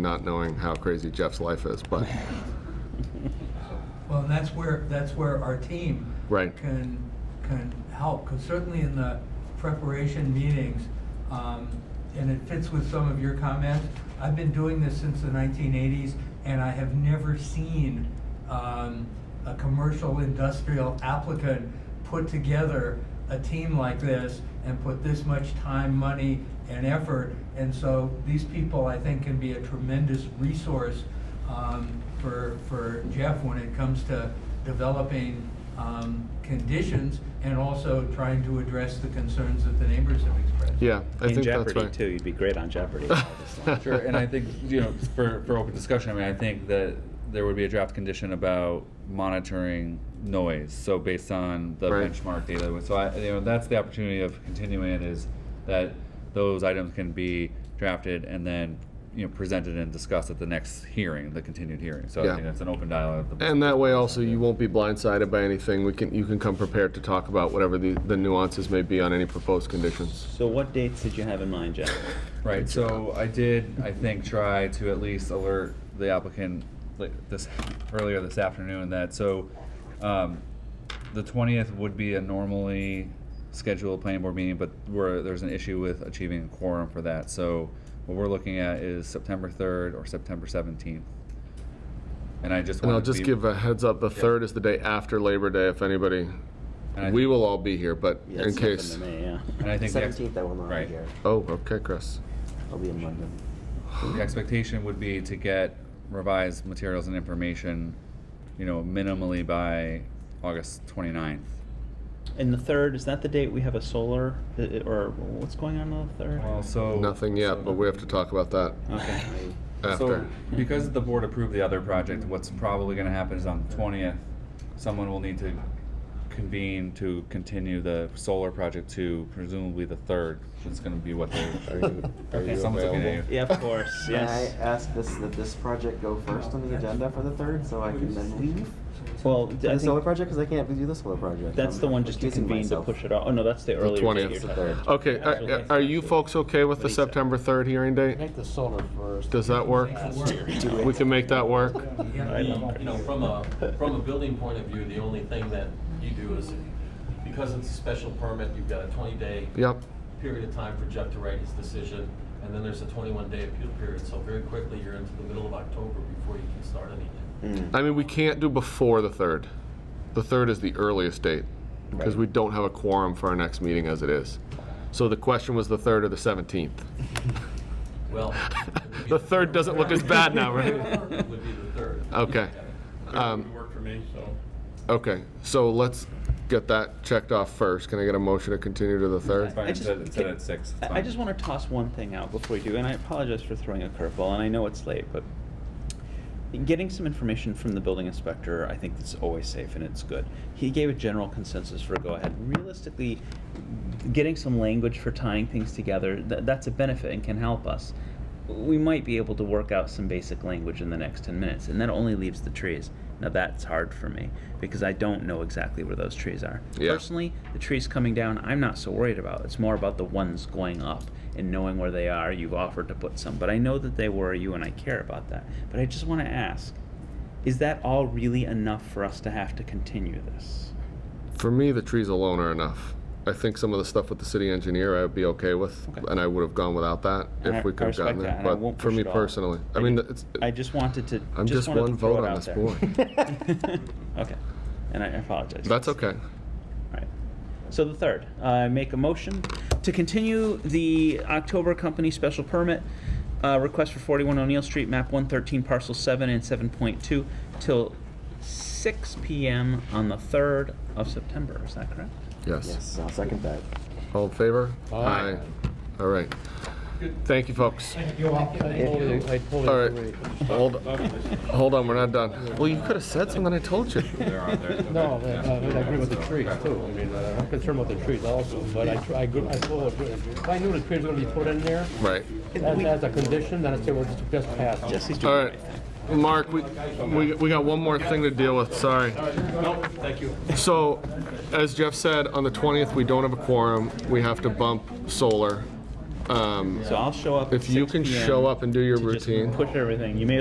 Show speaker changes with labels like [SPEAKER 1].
[SPEAKER 1] not knowing how crazy Jeff's life is, but,
[SPEAKER 2] Well, and that's where, that's where our team
[SPEAKER 1] Right.
[SPEAKER 2] can, can help, because certainly in the preparation meetings, um, and it fits with some of your comments, I've been doing this since the 1980s, and I have never seen um, a commercial industrial applicant put together a team like this and put this much time, money, and effort. And so these people, I think, can be a tremendous resource um, for, for Jeff when it comes to developing um, conditions and also trying to address the concerns that the neighbors have expressed.
[SPEAKER 1] yeah, I think
[SPEAKER 3] In
[SPEAKER 1] that's
[SPEAKER 3] Jeopardy
[SPEAKER 1] right.
[SPEAKER 3] too, you'd be great on Jeopardy.
[SPEAKER 4] Sure, and I think, you know, for, for open discussion, I mean, I think that there would be a draft condition about monitoring noise, so based on the
[SPEAKER 1] Right.
[SPEAKER 4] benchmark data. So I, you know, that's the opportunity of continuing it is that those items can be drafted and then, you know, presented and discussed at the next hearing, the continued hearing. So
[SPEAKER 1] Yeah.
[SPEAKER 4] I think that's an open dialogue. with the-
[SPEAKER 1] And that way also, you won't be blindsided by anything. We can, you can come prepared to talk about whatever the the nuances may be on any proposed conditions.
[SPEAKER 3] So what dates did you have in mind, Jeff?
[SPEAKER 4] Right, so I did, I think, try to at least alert the applicant li- this, earlier this afternoon that, so, um, the twentieth would be a normally scheduled planning board meeting, but where there's an issue with achieving a quorum for that, so what we're looking at is September third or September seventeenth. And I just
[SPEAKER 1] And I'll
[SPEAKER 4] wanted to
[SPEAKER 1] just
[SPEAKER 4] be-
[SPEAKER 1] give a heads up, the third is the day after Labor Day, if anybody,
[SPEAKER 4] And I
[SPEAKER 1] we
[SPEAKER 4] think-
[SPEAKER 1] will all be here, but
[SPEAKER 3] Yeah,
[SPEAKER 1] in
[SPEAKER 3] it's
[SPEAKER 1] case.
[SPEAKER 3] nothing to me, yeah.
[SPEAKER 4] And I think the ex-
[SPEAKER 5] Seventeenth, I will not be
[SPEAKER 4] right.
[SPEAKER 5] here.
[SPEAKER 1] Oh, okay, Chris.
[SPEAKER 5] I'll be in London.
[SPEAKER 4] The expectation would be to get revised materials and information, you know, minimally by August 29th.
[SPEAKER 3] And the third, is that the date we have a solar, uh, or what's going on on the third?
[SPEAKER 4] Well, Oh, so.
[SPEAKER 1] Nothing yet, but we have to talk about that
[SPEAKER 3] Okay.
[SPEAKER 1] after.
[SPEAKER 4] So, because the board approved the other project, what's probably gonna happen is on the twentieth, someone will need to convene to continue the solar project to presumably the third, which is gonna be what they.
[SPEAKER 1] Are
[SPEAKER 3] Okay.
[SPEAKER 1] you
[SPEAKER 4] someone's looking at
[SPEAKER 1] available?
[SPEAKER 4] you.
[SPEAKER 3] Yeah, of course,
[SPEAKER 5] May I
[SPEAKER 3] yes.
[SPEAKER 5] ask this, that this project go first on the agenda for the third, so I can then leave?
[SPEAKER 3] Well,
[SPEAKER 5] For
[SPEAKER 3] I
[SPEAKER 5] the solar
[SPEAKER 3] think
[SPEAKER 5] project, because I can't do the solar project.
[SPEAKER 3] that's the one just to convene to push it off. Oh, no, that's the earlier date
[SPEAKER 1] 20th.
[SPEAKER 3] you're
[SPEAKER 1] It's the
[SPEAKER 3] talking about.
[SPEAKER 1] Okay, are- are you folks okay with the
[SPEAKER 3] Lisa.
[SPEAKER 1] September 3rd hearing date?
[SPEAKER 6] Make the solar first.
[SPEAKER 1] Does that work? We can make that work?
[SPEAKER 2] Yeah.
[SPEAKER 3] I know.
[SPEAKER 7] You know, from a, from a building point of view, the only thing that you do is, because it's a special permit, you've got a twenty-day
[SPEAKER 1] Yep,
[SPEAKER 7] period of time for Jeff to write his decision, and then there's a twenty-one day appeal period, so very quickly, you're into the middle of October before you can start anything.
[SPEAKER 1] I mean, we can't do before the 3rd. The 3rd is the earliest date, because we don't have a quorum for our next meeting as it is. So the question was the 3rd or the 17th?
[SPEAKER 7] Well.
[SPEAKER 1] Hmm. The 3rd doesn't look as bad now, right?
[SPEAKER 7] It would be the third.
[SPEAKER 1] Okay. Um,
[SPEAKER 7] work for me, so.
[SPEAKER 1] Okay, so let's get that checked off first. Can I get a motion to continue to the 3rd?
[SPEAKER 4] Fine,
[SPEAKER 3] I just-
[SPEAKER 4] instead- instead
[SPEAKER 3] can-
[SPEAKER 4] at six, it's
[SPEAKER 3] I- I
[SPEAKER 4] fine.
[SPEAKER 3] just want to toss one thing out before we do, and I apologize for throwing a curveball, and I know it's late, but getting some information from the building inspector, I think is always safe and it's good. He gave a general consensus for go ahead. Realistically, getting some language for tying things together, tha that's a benefit and can help us. We might be able to work out some basic language in the next 10 minutes, and that only leaves the trees. Now, that's hard for me because I don't know exactly where those trees are.
[SPEAKER 1] Yeah.
[SPEAKER 3] Personally, the trees coming down, I'm not so worried about. It's more about the ones going up and knowing where they are. You've offered to put some, but I know that they were you and I care about that. But I just want to ask is that all really enough for us to have to continue this?
[SPEAKER 1] For me, the trees alone are enough. I think some of the stuff with the city engineer I would be okay with,
[SPEAKER 3] Okay.
[SPEAKER 1] and I would have gone without that
[SPEAKER 3] And
[SPEAKER 1] if
[SPEAKER 3] I-
[SPEAKER 1] we
[SPEAKER 3] I
[SPEAKER 1] could have
[SPEAKER 3] respect
[SPEAKER 1] gotten
[SPEAKER 3] that,
[SPEAKER 1] it.
[SPEAKER 3] and I
[SPEAKER 1] But
[SPEAKER 3] won't
[SPEAKER 1] for
[SPEAKER 3] push
[SPEAKER 1] me
[SPEAKER 3] it off.
[SPEAKER 1] personally, I
[SPEAKER 3] I
[SPEAKER 1] mean,
[SPEAKER 3] ju-
[SPEAKER 1] it's,
[SPEAKER 3] I just wanted to.
[SPEAKER 1] I'm just
[SPEAKER 3] wanted to
[SPEAKER 1] one
[SPEAKER 3] throw
[SPEAKER 1] vote
[SPEAKER 3] it
[SPEAKER 1] on
[SPEAKER 3] out
[SPEAKER 1] this
[SPEAKER 3] there.
[SPEAKER 1] board.
[SPEAKER 3] okay, and I apologize.
[SPEAKER 1] that's okay.
[SPEAKER 3] All right. So the third, I make a motion to continue the October company special permit uh, request for 41 O'Neill Street, map 113, parcel 7 and 7.2 till 6 p.m. on the 3rd of September. Is that correct?
[SPEAKER 1] Yes.
[SPEAKER 5] Yes, I'll second that.
[SPEAKER 1] All in favor?
[SPEAKER 6] Aye.
[SPEAKER 1] All right. Thank you, folks.
[SPEAKER 6] I totally
[SPEAKER 1] All right.
[SPEAKER 6] agree.
[SPEAKER 1] Hold, hold on, we're not done. Well, you could have said something, I told you.
[SPEAKER 4] They're on there, okay.
[SPEAKER 6] No, I I mean, I agree with the
[SPEAKER 4] Yeah, so-
[SPEAKER 6] trees too. I mean, uh, I'm concerned with the trees also, but I, tr- I agree, I totally agree. If I knew the trees were gonna be put in there,
[SPEAKER 1] Right.
[SPEAKER 6] as, as a condition, then I'd say, well, just- just pass. it.
[SPEAKER 3] Jesse's doing
[SPEAKER 1] All
[SPEAKER 3] the
[SPEAKER 1] right. Mark, we, we, we got one more thing to deal with, sorry.
[SPEAKER 7] Nope, thank you.
[SPEAKER 1] So, as Jeff said, on the 20th, we don't have a quorum. We have to bump solar. Um,
[SPEAKER 3] So I'll show up. at
[SPEAKER 1] If you
[SPEAKER 3] 6
[SPEAKER 1] can
[SPEAKER 3] PM
[SPEAKER 1] show up and do your
[SPEAKER 3] to just
[SPEAKER 1] routine.
[SPEAKER 3] Push everything. You may